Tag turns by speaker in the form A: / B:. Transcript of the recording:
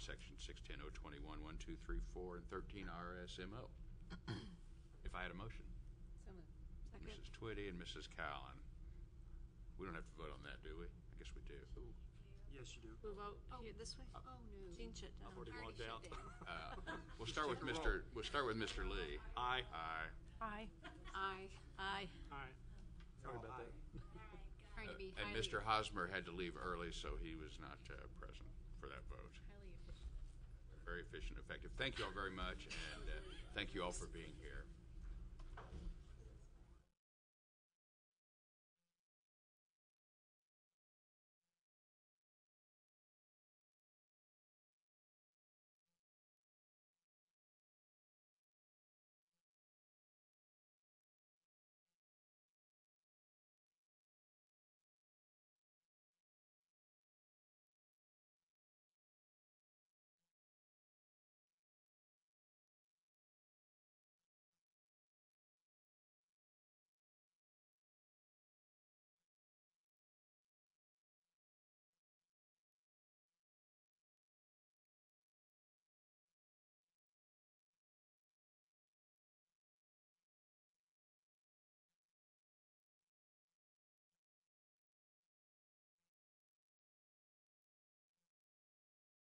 A: section six ten oh twenty-one, one, two, three, four, and thirteen RSMO. If I had a motion,
B: So moved.
A: Mrs. Twitty and Mrs. Cowan. We don't have to vote on that, do we? I guess we do.
C: Yes, you do.
D: Move out
B: Oh,
D: here this way?
B: Oh, no.
D: Change it down.
C: I've already
B: Already
C: logged
B: shut
C: out.
B: down.
A: Uh, We'll start with
C: Just take a
A: Mr., we'll start with Mr. Lee.
C: Aye.
A: Aye.
E: Aye.
B: Aye,
D: Aye.
C: Aye. Sorry about that.
B: trying to be
A: Uh, And
B: highly,
A: Mr. Hosmer had to leave early, so he was not uh, present for that vote.
B: highly efficient.
A: Very efficient, and effective. Thank you all very much, and uh, thank you all for being here.